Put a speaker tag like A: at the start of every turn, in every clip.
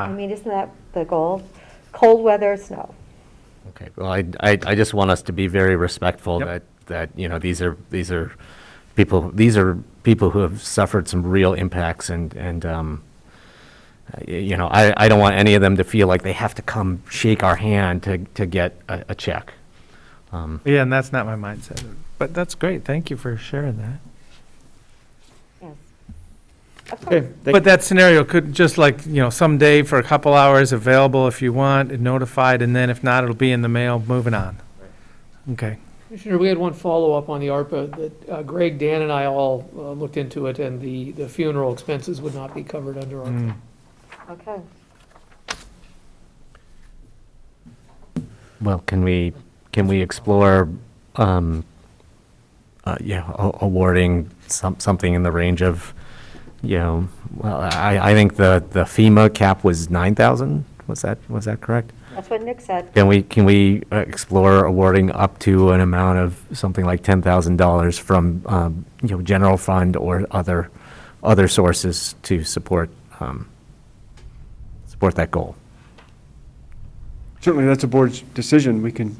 A: Ah.
B: I mean, isn't that the goal? Cold weather, snow.
A: Okay, well, I, I, I just want us to be very respectful
C: Yep.
A: that, that, you know, these are, these are people, these are people who have suffered some real impacts and, and, um, y- you know, I, I don't want any of them to feel like they have to come shake our hand to, to get a, a check.
C: Yeah, and that's not my mindset. But that's great. Thank you for sharing that.
B: Yes. Of course.
D: Okay, thank-
C: But that scenario could, just like, you know, someday for a couple hours, available if you want, and notified, and then if not, it'll be in the mail, moving on. Okay.
D: Commissioner, we had one follow-up on the ARPA that uh, Greg, Dan, and I all uh, looked into it, and the, the funeral expenses would not be covered under ARPA.
C: Mm.
B: Okay.
A: Well, can we, can we explore, um, uh, yeah, a- awarding some, something in the range of, you know, well, I, I think the, the FEMA cap was nine thousand, was that, was that correct?
B: That's what Nick said.
A: Can we, can we uh, explore awarding up to an amount of something like ten thousand dollars from, um, you know, general fund or other, other sources to support, um, support that goal?
E: Certainly, that's a board's decision. We can,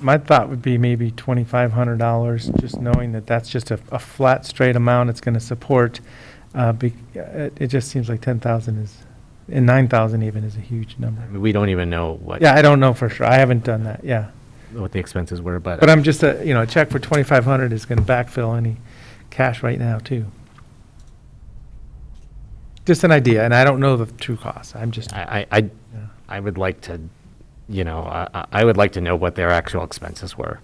C: My thought would be maybe twenty-five hundred dollars, just knowing that that's just a, a flat, straight amount it's gonna support. Uh, be, it, it just seems like ten thousand is, and nine thousand even is a huge number.
A: I mean, We don't even know what,
C: Yeah, I don't know for sure. I haven't done that, yeah.
A: what the expenses were, but.
C: But I'm just, a- you know, a check for twenty-five hundred is gonna backfill any cash right now, too. Just an idea, and I don't know the true cost. I'm just,
A: I, I, I- I would like to, you know, I, I- I would like to know what their actual expenses were,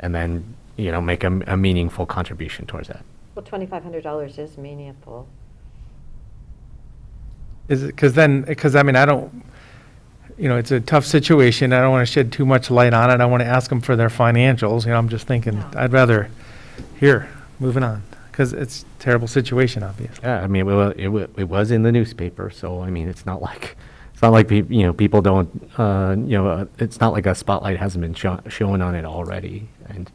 A: and then, you know, make a, m- a meaningful contribution towards that.
B: Well, $2,500 is meaningful.
C: is it, because then, because I mean, I don't, you know, it's a tough situation. I don't want to shed too much light on it. I want to ask them for their financials, you know, I'm just thinking,
B: No.
C: I'd rather, here, moving on, because it's a terrible situation, obviously.
A: Yeah, I mean, it wa- it wa- it was in the newspaper, so, I mean, it's not like, it's not like, peop- you know, people don't, uh, you know, uh, it's not like a spotlight hasn't been sho- shown on it already, and,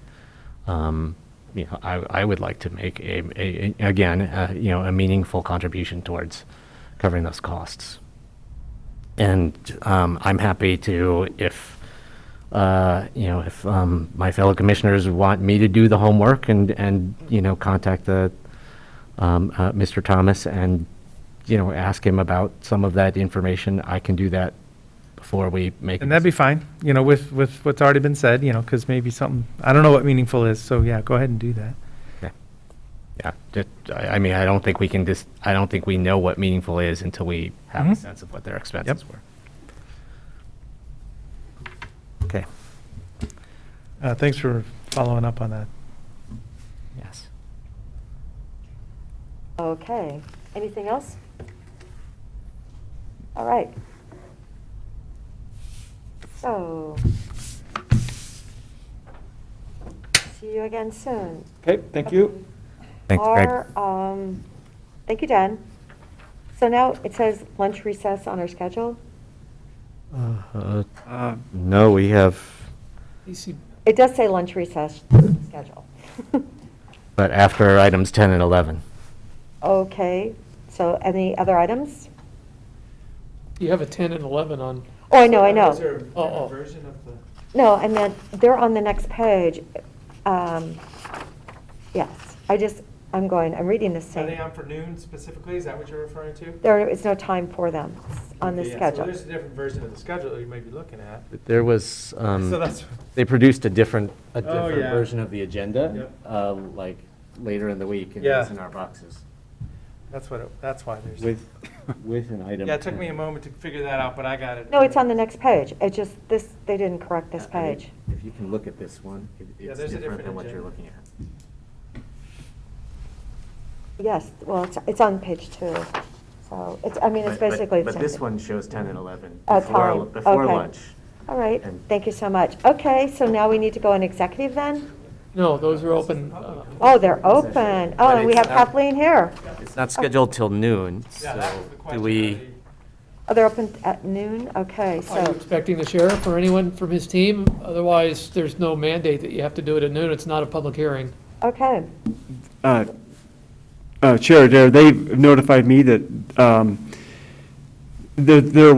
A: um, you know, I, I would like to make a, a, a- again, uh, you know, a meaningful contribution towards covering those costs. And, um, I'm happy to, if, uh, you know, if, um, my fellow commissioners want me to do the homework and, and, you know, contact the, um, uh, Mr. Thomas and, you know, ask him about some of that information. I can do that before we make. a
C: And that'd be fine, you know, with, with what's already been said, you know, because maybe something, I don't know what meaningful is, so yeah, go ahead and do that.
A: Yeah, just, I, I mean, I don't think we can just, I don't think we know what meaningful is until we have a
C: Mhm.
A: sense of what their expenses were. Okay,
C: Uh, thanks for following up on that.
A: yes.
B: Okay. Anything else? All right. So, see you again soon.
E: okay, thank you.
A: Thanks, Greg.
B: Our, um, thank you, Dan. So now it says lunch recess on our schedule.
A: Uh,
E: Uh,
A: No, we have,
D: DC
B: It does say lunch recess schedule.
A: but after items 10 and 11.
B: Okay, so any other items?
D: You have a 10 and 11 on,
B: Oh, I know, I know.
D: Oh, oh.
C: version of the?
B: No, I meant, they're on the next page. Um, Yes, I just, I'm going, I'm reading this
C: Are they
B: thing.
C: on for noon specifically? Is that what you're referring to?
B: There is no time for them on the
C: Okay, yeah, So
B: schedule.
C: there's a different version of the schedule that you may be looking at.
A: There was, um.
C: So that's,
A: they produced a different, a
C: Oh,
A: different
C: yeah.
A: version of the agenda,
C: Yep.
A: uh, like later in the week, and
C: Yeah.
A: it's in our boxes
C: that's what, it- that's why there's.
A: with, with an item.
C: Yeah, it took me a
A: 10.
C: moment to figure that out, but I got it.
B: No, it's on the next page. It just, this, they didn't correct this
A: I mean,
B: page.
A: If you can look at this one, it-
C: Yeah,
A: it's
C: there's a
A: different
C: different
A: than what you're
C: agenda.
A: looking at.
B: Yes, well, it's, it's on page two. So it's, I mean, it's
A: But- but-
B: basically the same
A: But this
B: thing.
A: one shows ten and eleven
B: Oh,
A: before,
B: time.
A: before
B: Okay.
A: lunch.
B: All right,
A: And-
B: thank you so much. Okay, so now we need to go in executive then?
D: no, those are open. uh,
B: Oh, they're open. Oh, and we have Kathleen here.
A: It's not scheduled till noon, so do we?
B: Oh, they're open at noon? Okay,
D: Are Oh, you
B: so,
D: expecting the sheriff or anyone from his team? Otherwise, there's no mandate that you have to do it at noon. It's not a public hearing.
B: okay.
E: uh, uh, Chair Adair, they notified me that um, there there